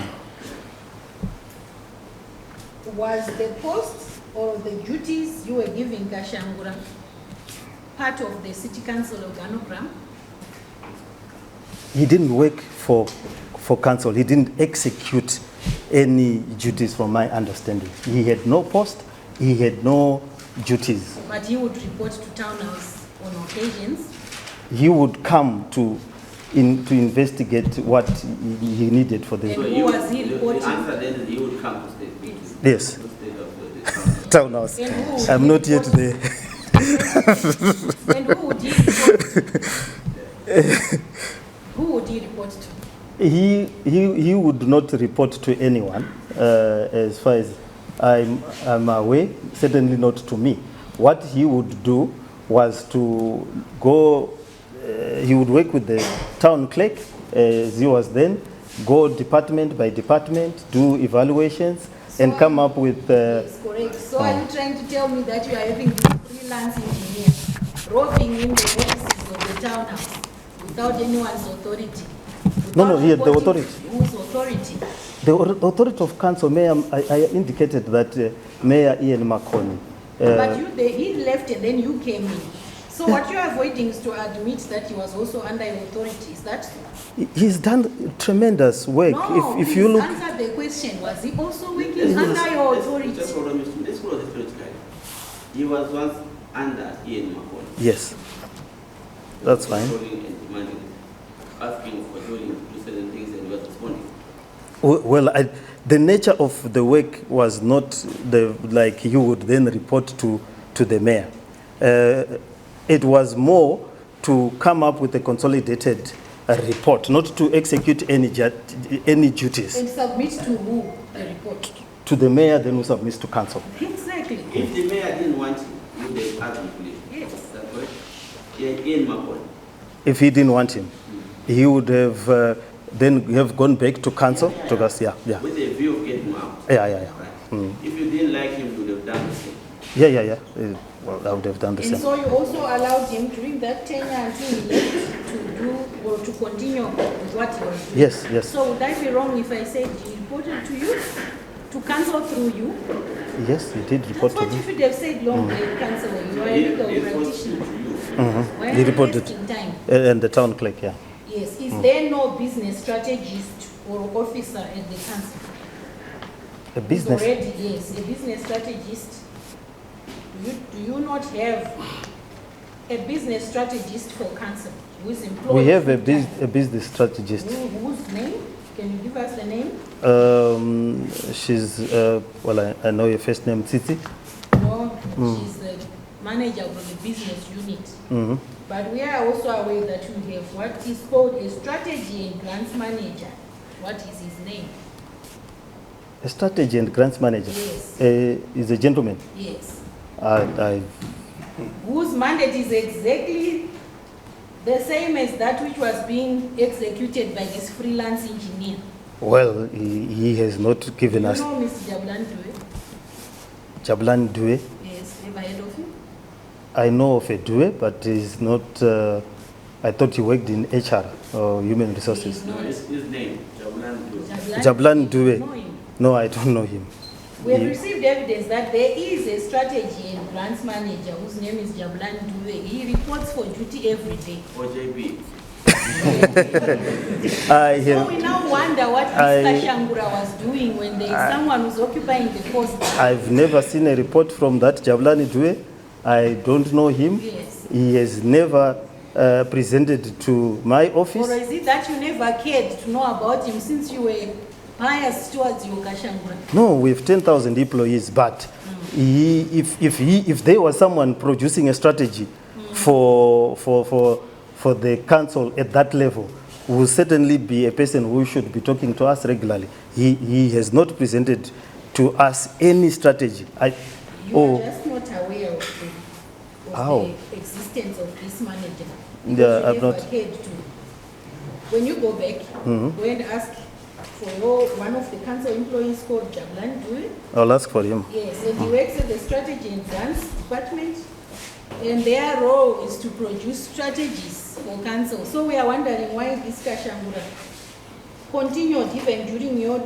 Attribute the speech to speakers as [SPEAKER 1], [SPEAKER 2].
[SPEAKER 1] was the posts or the duties you were giving Gashangura part of the city council organogram?
[SPEAKER 2] He didn't work for, for council. He didn't execute any duties from my understanding. He had no post, he had no duties.
[SPEAKER 1] But he would report to town house on occasions.
[SPEAKER 2] He would come to, in, to investigate what he he needed for
[SPEAKER 1] And
[SPEAKER 2] the
[SPEAKER 1] who
[SPEAKER 3] you-
[SPEAKER 1] was he
[SPEAKER 3] you-
[SPEAKER 1] reporting?
[SPEAKER 3] The answer then is you would come to state meeting.
[SPEAKER 2] Yes.
[SPEAKER 3] To state of the council.
[SPEAKER 2] town house.
[SPEAKER 1] And who would
[SPEAKER 2] I'm
[SPEAKER 1] he
[SPEAKER 2] not yet
[SPEAKER 1] report-
[SPEAKER 2] there.
[SPEAKER 1] And who would he report to? Who would he report to?
[SPEAKER 2] He, he, he would not report to anyone, uh, as far as I'm, I'm aware, certainly not to me. What he would do was to go, uh, he would work with the town clerk, as he was then, go department by department, do evaluations, and
[SPEAKER 1] So-
[SPEAKER 2] come up with. Uh, oh.
[SPEAKER 1] Yes, correct. So are you trying to tell me that you are having this freelance engineer roving in the offices of the townhouse without anyone's authority?
[SPEAKER 2] No, no,
[SPEAKER 1] without
[SPEAKER 2] he had the
[SPEAKER 1] reporting
[SPEAKER 2] authority.
[SPEAKER 1] Whose authority?
[SPEAKER 2] The au- authority of council, Mayor, I, I indicated that uh, Mayor Ian Makoni. Uh,
[SPEAKER 1] But you, they, he left and then you came in. So what you are avoiding is to admit that he was also under your authority, is that?
[SPEAKER 2] he- He's done tremendous work.
[SPEAKER 1] No,
[SPEAKER 2] if, if you
[SPEAKER 1] please
[SPEAKER 2] look,
[SPEAKER 1] answer the question, was he also
[SPEAKER 3] Let's
[SPEAKER 1] working
[SPEAKER 3] go to-
[SPEAKER 1] under your
[SPEAKER 3] let's-
[SPEAKER 1] authority?
[SPEAKER 3] Just hold on, Mr. let's go to the spirit guide. He was once under Ian McCall.
[SPEAKER 2] Yes, That's fine.
[SPEAKER 3] Controlling and demanding, asking for doing, do certain things and he was responding.
[SPEAKER 2] W- well, I, the nature of the work was not the, like you would then report to, to the mayor. Uh, it was more to come up with a consolidated uh, report, not to execute any, ju- any duties.
[SPEAKER 1] And submit to who the report?
[SPEAKER 2] To the mayor, then we submit to council.
[SPEAKER 1] Exactly,
[SPEAKER 3] If the mayor didn't want him, he would have asked him to leave.
[SPEAKER 1] yes.
[SPEAKER 3] Is that correct? Yeah, Ian McCall.
[SPEAKER 2] If he didn't want him, he would have uh, then have gone back to council to us. Yeah, yeah,
[SPEAKER 3] With a view of getting him out.
[SPEAKER 2] yeah, yeah, yeah.
[SPEAKER 3] Right.
[SPEAKER 2] Mm.
[SPEAKER 3] If you didn't like him, you would have done the same.
[SPEAKER 2] Yeah, yeah, yeah. Uh, well, I would have done the
[SPEAKER 1] And
[SPEAKER 2] same.
[SPEAKER 1] so you also allowed him during that tenure until he left to do or to continue with what he was doing?
[SPEAKER 2] Yes, yes,
[SPEAKER 1] So would I be wrong if I said he reported to you, to counsel through you?
[SPEAKER 2] yes. He did
[SPEAKER 1] That's
[SPEAKER 2] report to
[SPEAKER 1] what
[SPEAKER 2] me. Mm.
[SPEAKER 1] you should have said long ago, counsel, you are a
[SPEAKER 3] He-
[SPEAKER 1] legal
[SPEAKER 3] he forced you
[SPEAKER 1] practitioner.
[SPEAKER 3] to you.
[SPEAKER 1] Why
[SPEAKER 2] He
[SPEAKER 1] are you
[SPEAKER 2] reported. Mm.
[SPEAKER 1] wasting time?
[SPEAKER 2] Uh, And the town clerk, yeah.
[SPEAKER 1] Yes, is there no business strategist or officer at the council?
[SPEAKER 2] A business,
[SPEAKER 1] Already, yes, a business strategist. Do you, do you not have a business strategist for council who's employed?
[SPEAKER 2] we have a bus,
[SPEAKER 1] full-time?
[SPEAKER 2] a business strategist.
[SPEAKER 1] Who- Whose name? Can you give us the name?
[SPEAKER 2] Um, she's, uh, well, I, I know your first name, Titi.
[SPEAKER 1] No,
[SPEAKER 2] Mm.
[SPEAKER 1] she's the manager of the business unit.
[SPEAKER 2] Mhm.
[SPEAKER 1] But we are also aware that we have what is called a strategy and grants manager. What is his name?
[SPEAKER 2] A strategy and grants manager.
[SPEAKER 1] Yes.
[SPEAKER 2] Uh, is a gentleman.
[SPEAKER 1] Yes.
[SPEAKER 2] I, I,
[SPEAKER 1] whose mandate is exactly the same as that which was being executed by this freelance engineer.
[SPEAKER 2] well, he, he has not
[SPEAKER 1] You
[SPEAKER 2] given
[SPEAKER 1] know
[SPEAKER 2] us
[SPEAKER 1] Mr. Jabulan Dube?
[SPEAKER 2] Jablan Due.
[SPEAKER 1] Yes, ever heard of him?
[SPEAKER 2] I know of a Due, but he's not, uh, I thought he worked in HR or human resources.
[SPEAKER 3] No, his, his name, Jabulan Dube.
[SPEAKER 2] Jabulan
[SPEAKER 1] You
[SPEAKER 2] Dube.
[SPEAKER 1] know him.
[SPEAKER 2] No, I don't know him.
[SPEAKER 1] We have
[SPEAKER 2] He-
[SPEAKER 1] received evidence that there is a strategy and grants manager whose name is Jabulan Dube. He reports for duty every day.
[SPEAKER 3] Or JB.
[SPEAKER 2] I
[SPEAKER 1] So we
[SPEAKER 2] have,
[SPEAKER 1] now wonder what
[SPEAKER 2] I-
[SPEAKER 1] Mr. Shangura was doing when there is someone who's occupying the post.
[SPEAKER 2] I've never seen a report from that Jablani Due. I don't know him.
[SPEAKER 1] Yes.
[SPEAKER 2] He has never uh, presented to my
[SPEAKER 1] Or
[SPEAKER 2] office.
[SPEAKER 1] is it that you never cared to know about him since you were biased towards your Kashangura?
[SPEAKER 2] No, we have 10,000 employees, but
[SPEAKER 1] Mm.
[SPEAKER 2] he, if, if, he, if there was someone producing a strategy
[SPEAKER 1] Mm.
[SPEAKER 2] for, for, for, for the council at that level, will certainly be a person who should be talking to us regularly. He, he has not presented to us any strategy. I,
[SPEAKER 1] You
[SPEAKER 2] oh,
[SPEAKER 1] are just not aware of the,
[SPEAKER 2] How?
[SPEAKER 1] of the existence of this manager.
[SPEAKER 2] Yeah,
[SPEAKER 1] because you
[SPEAKER 2] I've
[SPEAKER 1] never
[SPEAKER 2] not- Mm-hmm.
[SPEAKER 1] cared to. When you go back, go and ask for your, one of the council employees called Jablan Dube.
[SPEAKER 2] I'll ask for him.
[SPEAKER 1] Yes, and he works at the strategy and grants department. And their role is to produce strategies for council. So we are wondering why this Kashangura continued even during your